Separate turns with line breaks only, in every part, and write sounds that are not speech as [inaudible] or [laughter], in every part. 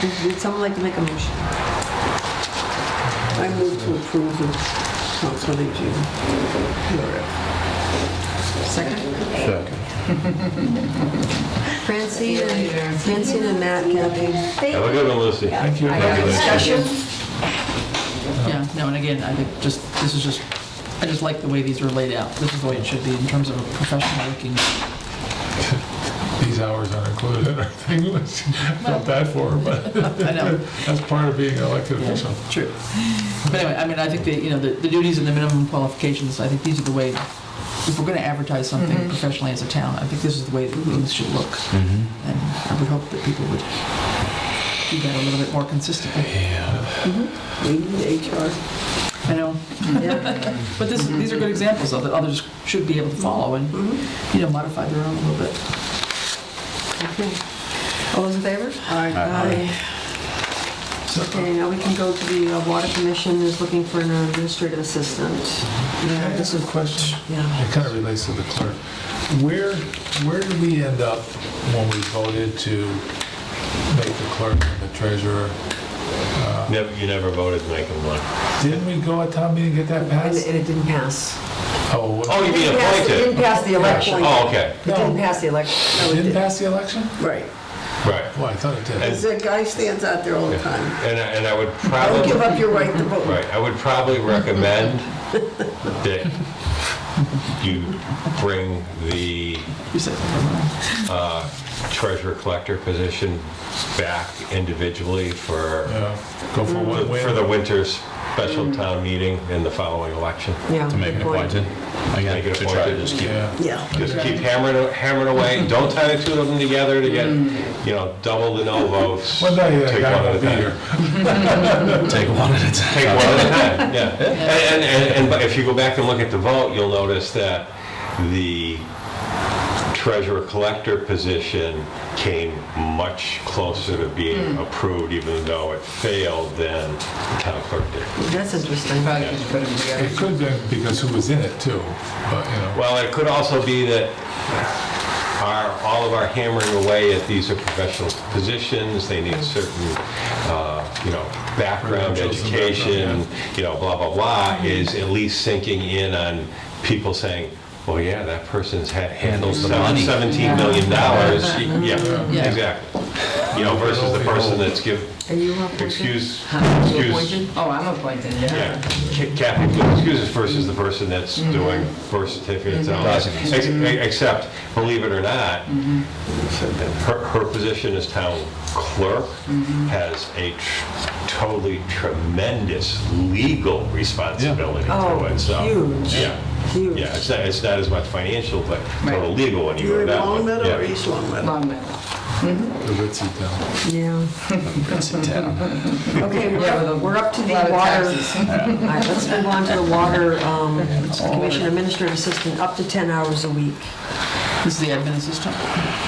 Did did someone like to make a motion?
I move to approve the council on aging. PRF.
Second?
Second.
Francine and, Francine and Matt Cappy.
Have a good one, Lucy. Thank you.
I got a discussion.
Yeah, no, and again, I think just, this is just, I just like the way these were laid out. This is the way it should be in terms of a professional looking.
These hours aren't included in our thing list. [laughs] Felt bad for her, but
[laughs] I know,
that's part of being an elected official.
true. But anyway, I mean, I think that, you know, the the duties and the minimum qualifications, I think these are the way, if we're going to advertise something professionally as a town, I think this is the way that things should look. And I would hope that people would do that a little bit more consistently.
We need HR.
I know, but this, these are good examples of that others should be able to follow and,
Mm-hmm.
you know, modify their own a little bit.
Okay. All those in favor?
Aye.
Okay, now we can go to the uh, Water Commission is looking for an administrative assistant.
Can I ask a question?
Yeah.
It kind of relates to the clerk. Where, where did we end up when we voted to make the clerk and the treasurer?
Never, you never voted to make him one.
Didn't we go at town meeting and get that
And
passed?
and it didn't pass.
Oh,
Oh,
what-
you mean
It didn't
appointed?
pass the election. It
Oh, okay,
didn't
no,
pass the election.
No, it
didn't
didn't.
pass the election?
Right.
right.
Well, I thought it did.
Because that guy stands out there all the time.
And, I- and I would
Don't
probably,
give up your right to vote.
right, I would probably recommend that you bring the
You said, never mind.
treasurer collector position back individually for,
Yeah, Go for
Mm-hmm.
one
for
win.
the winter's special town meeting and the following election.
Yeah.
To make
good
it
point.
appointed? Again,
Make it
to try to
appointed.
just keep,
Yeah,
Yeah.
Just keep hammering, hammering away, don't tie the two of them together to get, you know, double the no votes.
one day that
Take
guy
one at
will
a
be
time.
here.
[laughs] take one at a time.
Take one at a
[laughs]
time, yeah. And, and- and, and but if you go back and look at the vote, you'll notice that the treasurer collector position came much closer to
Mm.
being approved, even though it failed than the town clerk did.
That's interesting.
Probably could put them together.
It could have been because who was in it too, but you know.
Well, it could also be that our, all of our hammering away at these are professional positions, they need certain, uh, you know, background,
Credentials and
education,
background,
you know, blah, blah, blah, is at least sinking in on people saying, well, yeah, that person's ha- handled
Handles the money."
$17 million.
Yeah.
Yeah, exactly. You know, versus the person that's give,
Are you appointed?
excuse,
You
excuse,
appointed?
Oh, I'm appointed,
yeah,
yeah.
Ca- Kathy, please excuse us versus the person that's doing birth certificates and all that.
Documents.
Ex- Except, believe it or not, her, her position as town clerk has a tr- totally tremendous legal responsibility
Oh,
to it, so.
huge,
Yeah,
Huge.
yeah, it's not, it's not as much financial, but total
Right.
legal when you
You're
go
in
that one.
Longmeadow or
Yeah.
East Longmeadow?
Long Meadow.
The ritzy town.
Yeah.
It's a town.
Okay, we're
Yeah, with a
up- we're up to the
lot
water.
of
[laughs] All
taxes.
right, let's move on to the water um, commission administrative assistant, up to 10 hours a week.
This is the admin assistant.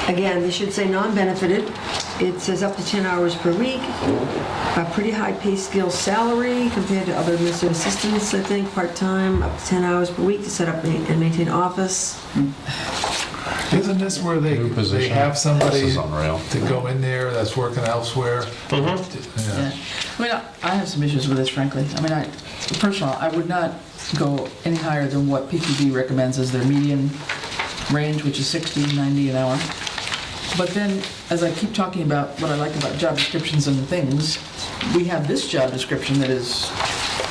Again, they should say non-benefited. It says up to 10 hours per week, a pretty high pay scale salary compared to other administrative assistants, I think, part-time, up to 10 hours per week to set up and maintain office.
Isn't this where they,
New
they
position.
have somebody
This is unreal.
to go in there that's working elsewhere?
Yeah.
Yeah.
I mean, I I have some issues with this, frankly. I mean, I, first of all, I would not go any higher than what PQB recommends as their median range, which is 60, 90 an hour. But then, as I keep talking about what I like about job descriptions and things, we have this job description that is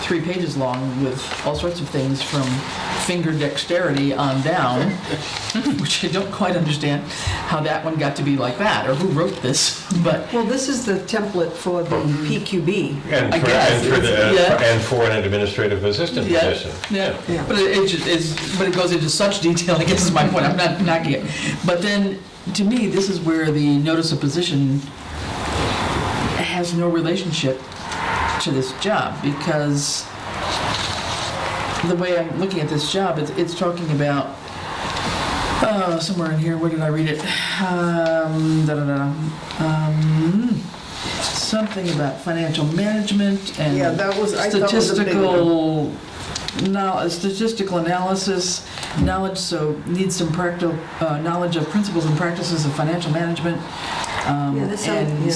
three pages long with all sorts of things from finger dexterity on down, [laughs] which I don't quite understand how that one got to be like that, or who wrote this, [laughs] but
Well, this is the template for the PQB.
And
I
for,
guess,
and for the,
yeah.
and for an administrative assistant
Yeah,
position.
Yeah.
Yeah, but it, it just, it's, but it goes into such detail, I guess is my point, I'm not knocking it. But then, to me, this is where the notice of position has no relationship to this job, because the way I'm looking at this job, it's, it's talking about, uh, somewhere in here, where did I read it? Um, da-da-da, um, something about financial management and
Yeah, that was, I thought was a big one.
statistical, no, statistical analysis, knowledge, so needs some practical, uh, knowledge of principles and practices of financial management. um,
Yeah, this sounds-
and
yeah.